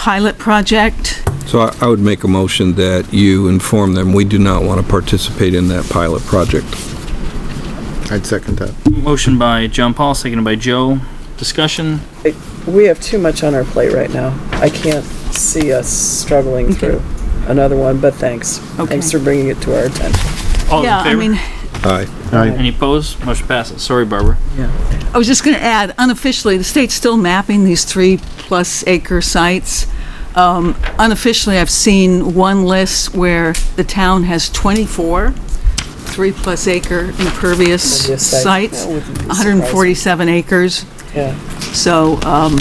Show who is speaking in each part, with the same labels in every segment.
Speaker 1: pilot project.
Speaker 2: So I- I would make a motion that you inform them, we do not want to participate in that pilot project.
Speaker 3: I'd second that.
Speaker 4: Motion by John Paul, seconded by Joe. Discussion?
Speaker 5: We have too much on our plate right now. I can't see us struggling through another one, but thanks. Thanks
Speaker 1: Okay.
Speaker 5: for bringing it to our attention.
Speaker 4: All those
Speaker 1: Yeah,
Speaker 4: in
Speaker 1: I
Speaker 4: favor?
Speaker 1: mean,
Speaker 2: Aye.
Speaker 4: Any opposed? Motion passes. Sorry, Barbara.
Speaker 1: I was just going to add, unofficially, the state's still mapping these three-plus acre sites. Um, Unofficially, I've seen one list where the town has 24 three-plus acre impervious
Speaker 5: Impervious sites.
Speaker 1: sites,
Speaker 5: That wouldn't be surprising.
Speaker 1: 147 acres.
Speaker 5: Yeah.
Speaker 1: So, um,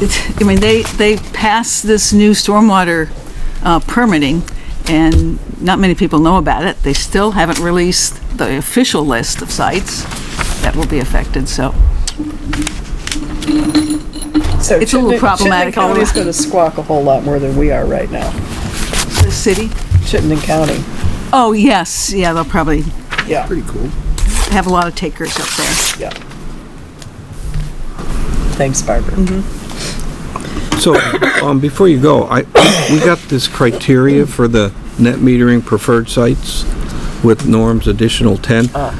Speaker 1: it, I mean, they, they passed this new stormwater, uh, permitting, and not many people know about it. They still haven't released the official list of sites that will be affected, so.
Speaker 5: So
Speaker 1: It's a little
Speaker 5: Chittenden-
Speaker 1: problematic all
Speaker 5: Chittenden County's
Speaker 1: around.
Speaker 5: gonna squawk a whole lot more than we are right now.
Speaker 1: The city?
Speaker 5: Chittenden County,
Speaker 1: Oh, yes, yeah, they'll probably
Speaker 5: yeah,
Speaker 3: Pretty cool.
Speaker 1: have a lot of takers up there.
Speaker 5: yeah. Thanks,
Speaker 1: Mm-hmm.
Speaker 5: Barbara.
Speaker 2: So, um, before you go, I, we got this criteria for the net metering preferred sites with norms additional 10.
Speaker 5: Ah.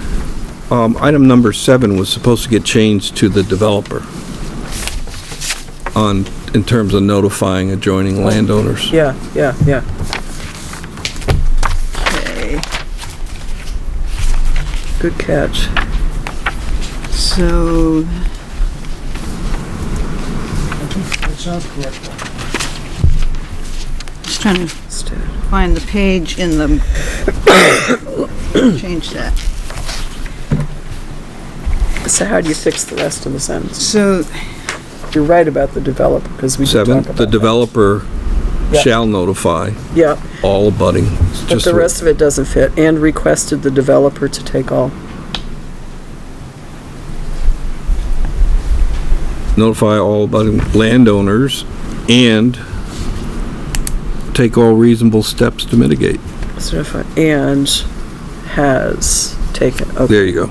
Speaker 2: Um, item number seven was supposed to get changed to the developer on, in terms of notifying adjoining landowners.
Speaker 5: Yeah, yeah, yeah. Good catch.
Speaker 1: So,
Speaker 6: That sounds correct.
Speaker 1: just trying to find the page in the, change that.
Speaker 5: So how do you fix the rest of the sentence?
Speaker 1: So,
Speaker 5: You're right about the developer, because we did talk
Speaker 2: Seven,
Speaker 5: about
Speaker 2: the
Speaker 5: that.
Speaker 2: developer
Speaker 5: Yeah.
Speaker 2: shall notify
Speaker 5: Yeah,
Speaker 2: all abutting. It's
Speaker 5: but
Speaker 2: just
Speaker 5: the
Speaker 2: a-
Speaker 5: rest of it doesn't fit, and requested the developer to take all.
Speaker 2: notify all abutting landowners and take all reasonable steps to mitigate.
Speaker 5: certified and has taken, okay,
Speaker 2: There you go.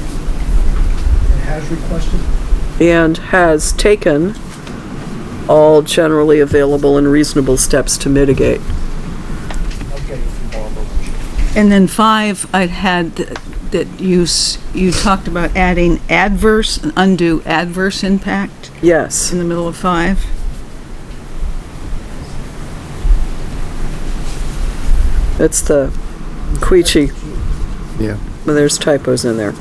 Speaker 6: It has requested.
Speaker 5: and has taken all generally available and reasonable steps to mitigate.
Speaker 6: I'll get it from Barbara.
Speaker 1: And then five, I had that you, s- you talked about adding adverse, and undue adverse impact
Speaker 5: Yes,
Speaker 1: in the middle of five.
Speaker 5: that's the Queechy,
Speaker 3: Yeah.
Speaker 5: but there's typos in there.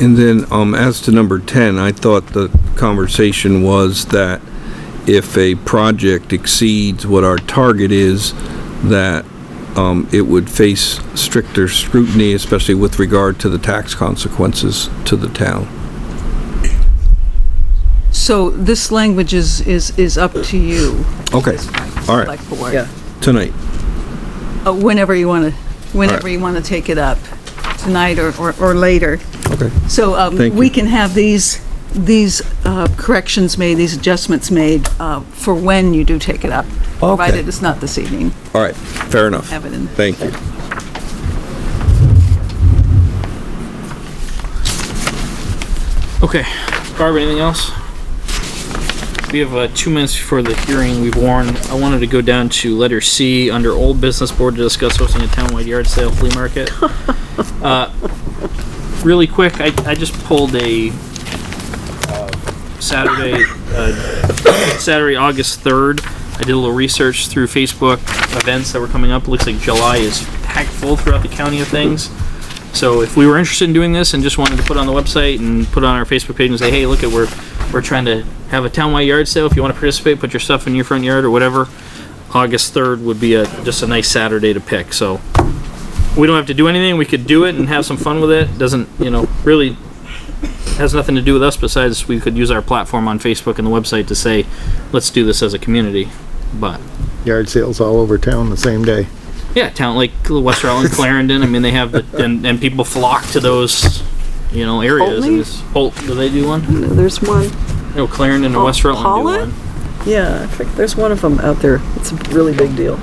Speaker 2: And then, um, as to number 10, I thought the conversation was that if a project exceeds what our target is, that, um, it would face stricter scrutiny, especially with regard to the tax consequences to the town.
Speaker 1: So this language is, is, is up to you.
Speaker 2: Okay, all right,
Speaker 1: Select board.
Speaker 5: Yeah.
Speaker 2: tonight.
Speaker 1: Uh, Whenever you want to, whenever you want to take it up, tonight or, or or later.
Speaker 2: Okay.
Speaker 1: So um,
Speaker 2: Thank
Speaker 1: we
Speaker 2: you.
Speaker 1: can have these, these uh, corrections made, these adjustments made uh, for when you do take it up. Provided it's not this evening,
Speaker 2: All right, fair enough.
Speaker 1: have it in.
Speaker 2: Thank you.
Speaker 4: Okay. Barbara, anything else? We have uh, two minutes before the hearing we've warned. I wanted to go down to letter C under old business board to discuss hosting a townwide yard sale flea market. Uh, Really quick, I, I just pulled a uh, Saturday, uh, Saturday, August 3rd. I did a little research through Facebook events that were coming up. Looks like July is packed full throughout the county of things. So if we were interested in doing this and just wanted to put it on the website and put it on our Facebook page and say, hey, look at we're we're trying to have a townwide yard sale. If you want to participate, put your stuff in your front yard or whatever. August third would be a just a nice Saturday to pick. So we don't have to do anything. We could do it and have some fun with it. Doesn't you know really has nothing to do with us besides we could use our platform on Facebook and the website to say, let's do this as a community. But
Speaker 3: Yard sales all over town the same day.
Speaker 4: yeah, town like West Rutland, Clarendon. I mean, they have the, and and people flock to those, you know, areas.
Speaker 5: Oltney?
Speaker 4: And it's- Holt, do they do one?
Speaker 5: No, There's one,
Speaker 4: No, Clarendon and West Rutland
Speaker 5: Pollitt?
Speaker 4: do one.
Speaker 5: yeah, I think there's one of them out there. It's a really big deal.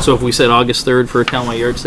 Speaker 4: So if we said August 3rd for a townwide yard sale,